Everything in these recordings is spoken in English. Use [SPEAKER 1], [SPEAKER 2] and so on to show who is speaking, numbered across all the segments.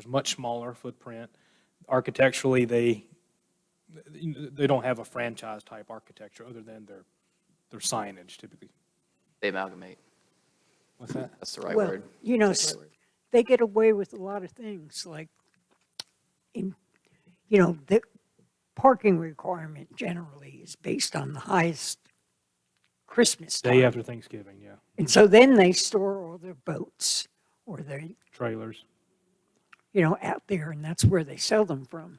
[SPEAKER 1] There's much smaller footprint. Architecturally, they, they don't have a franchise type architecture other than their, their signage typically.
[SPEAKER 2] They amalgamate.
[SPEAKER 1] What's that?
[SPEAKER 2] That's the right
[SPEAKER 3] Well,
[SPEAKER 2] word.
[SPEAKER 3] You know,
[SPEAKER 2] That's the
[SPEAKER 3] s-
[SPEAKER 2] right word.
[SPEAKER 3] they get away with a lot of things like, in, you know, the parking requirement generally is based on the highest Christmas
[SPEAKER 1] Day
[SPEAKER 3] time.
[SPEAKER 1] after Thanksgiving, yeah.
[SPEAKER 3] And so then they store all their boats or their,
[SPEAKER 1] Trailers.
[SPEAKER 3] you know, out there and that's where they sell them from.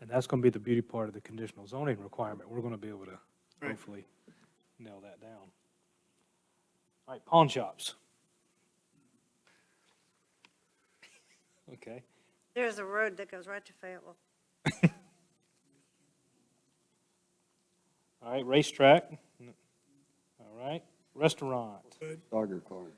[SPEAKER 1] And that's going to be the beauty part of the conditional zoning requirement. We're going to be able to hopefully nail that down. All right, pawn shops. Okay.
[SPEAKER 4] There's a road that goes right to Fayetteville.
[SPEAKER 1] All right, racetrack. All right, restaurant.
[SPEAKER 5] Dogger Corner.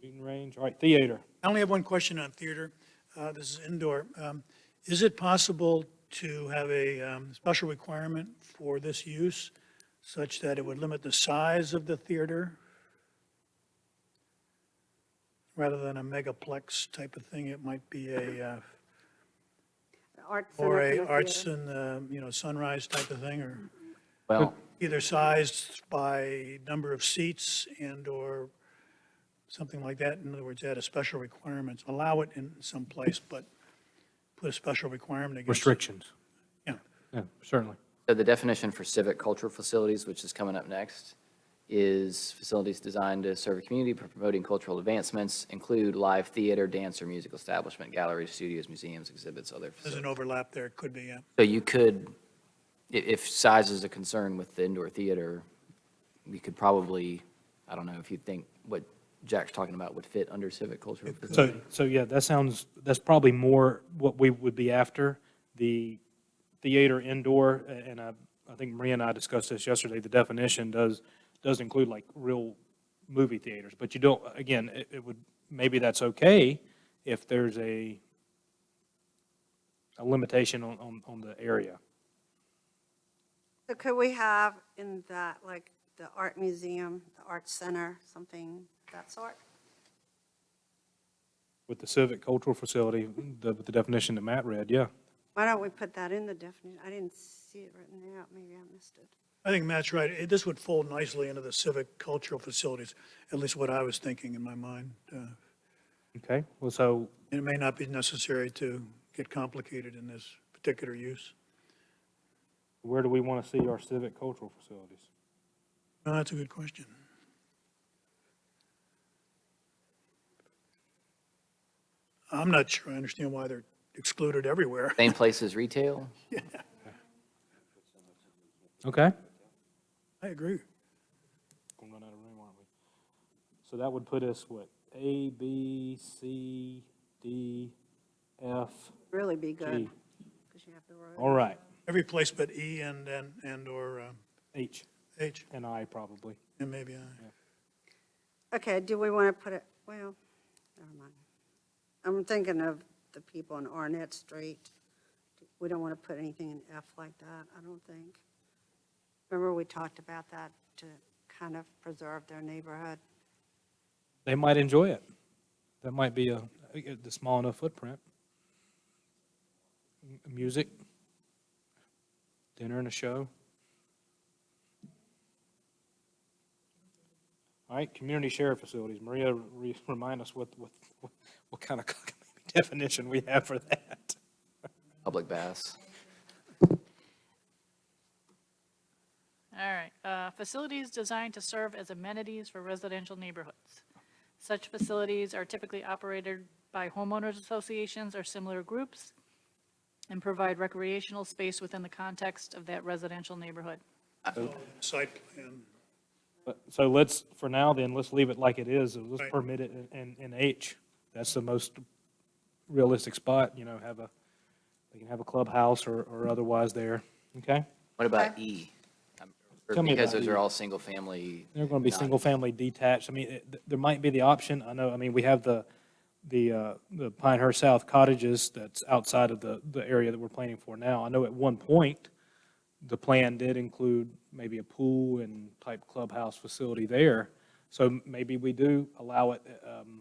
[SPEAKER 1] Shooting range. All right, theater.
[SPEAKER 6] I only have one question on theater. Uh, This is indoor. Um, Is it possible to have a um, special requirement for this use such that it would limit the size of the theater? Rather than a megaplex type of thing, it might be a, uh,
[SPEAKER 4] The Arts Center
[SPEAKER 6] or
[SPEAKER 4] for
[SPEAKER 6] a
[SPEAKER 4] the
[SPEAKER 6] arts
[SPEAKER 4] theater.
[SPEAKER 6] and, uh, you know, sunrise type of thing, or
[SPEAKER 2] Well,
[SPEAKER 6] either sized by number of seats and/or something like that. In other words, add a special requirement, allow it in some place, but put a special requirement against. it.
[SPEAKER 1] Restrictions.
[SPEAKER 6] Yeah.
[SPEAKER 1] Yeah, certainly.
[SPEAKER 2] so the definition for civic culture facilities, which is coming up next, is facilities designed to serve a community for promoting cultural advancements, include live theater, dance, or musical establishment, galleries, studios, museums, exhibits, other
[SPEAKER 6] There's an
[SPEAKER 2] facilities.
[SPEAKER 6] overlap there, could be, yeah.
[SPEAKER 2] So you could, i- if size is a concern with the indoor theater, we could probably, I don't know if you think what Jack's talking about would fit under civic culture.
[SPEAKER 1] So,
[SPEAKER 2] facility.
[SPEAKER 1] so yeah, that sounds, that's probably more what we would be after, the theater indoor, a- and I, I think Maria and I discussed this yesterday, the definition does, does include like real movie theaters, but you don't, again, it, it would, maybe that's okay if there's a, a limitation on, on, on the area.
[SPEAKER 4] So could we have in that, like, the art museum, the arts center, something of that sort?
[SPEAKER 1] With the civic cultural facility, the, with the definition that Matt read, yeah.
[SPEAKER 4] Why don't we put that in the definition? I didn't see it written out, maybe I missed it.
[SPEAKER 6] I think Matt's right. It- This would fold nicely into the civic cultural facilities, at least what I was thinking in my mind. Uh,
[SPEAKER 1] Okay, well, so
[SPEAKER 6] It may not be necessary to get complicated in this particular use.
[SPEAKER 1] where do we want to see our civic cultural facilities?
[SPEAKER 6] No, That's a good question. I'm not sure I understand why they're excluded everywhere.
[SPEAKER 2] Same place as retail?
[SPEAKER 1] Okay.
[SPEAKER 6] I agree.
[SPEAKER 1] Gonna run out of room, aren't we? So that would put us, what, A, B, C, D, E, F,
[SPEAKER 4] Really be
[SPEAKER 1] G.
[SPEAKER 4] good, because you have the road.
[SPEAKER 1] All right,
[SPEAKER 6] Every place but E and, and, and/or
[SPEAKER 1] H
[SPEAKER 6] H,
[SPEAKER 1] and I probably.
[SPEAKER 6] and maybe I.
[SPEAKER 4] Okay, do we want to put it, well, never mind. I'm thinking of the people on Arnett Street. We don't want to put anything in F like that, I don't think. Remember, we talked about that to kind of preserve their neighborhood?
[SPEAKER 1] They might enjoy it. That might be a, a- the small enough footprint. M- Music, dinner and a show. All right, community share facilities. Maria, re- remind us what, what, what- what kind of definition we have for that.
[SPEAKER 2] Public baths.
[SPEAKER 7] All right, uh, facilities designed to serve as amenities for residential neighborhoods. Such facilities are typically operated by homeowners associations or similar groups and provide recreational space within the context of that residential neighborhood.
[SPEAKER 6] Site plan.
[SPEAKER 1] But- So let's, for now then, let's leave it like it is, and let's
[SPEAKER 6] Right.
[SPEAKER 1] permit it in- in, in H. That's the most realistic spot, you know, have a, they can have a clubhouse or, or otherwise there, okay?
[SPEAKER 2] What about E? Um, or
[SPEAKER 1] Tell me
[SPEAKER 2] Because
[SPEAKER 1] about
[SPEAKER 2] those
[SPEAKER 1] E.
[SPEAKER 2] are all single-family.
[SPEAKER 1] They're gonna be
[SPEAKER 2] not-
[SPEAKER 1] single-family detached, I mean, it- th- there might be the option, I know, I mean, we have the, the, uh, the Pinehurst South cottages that's outside of the, the area that we're planning for now. I know at one point, the plan did include maybe a pool and type clubhouse facility there, So maybe we do allow it, um,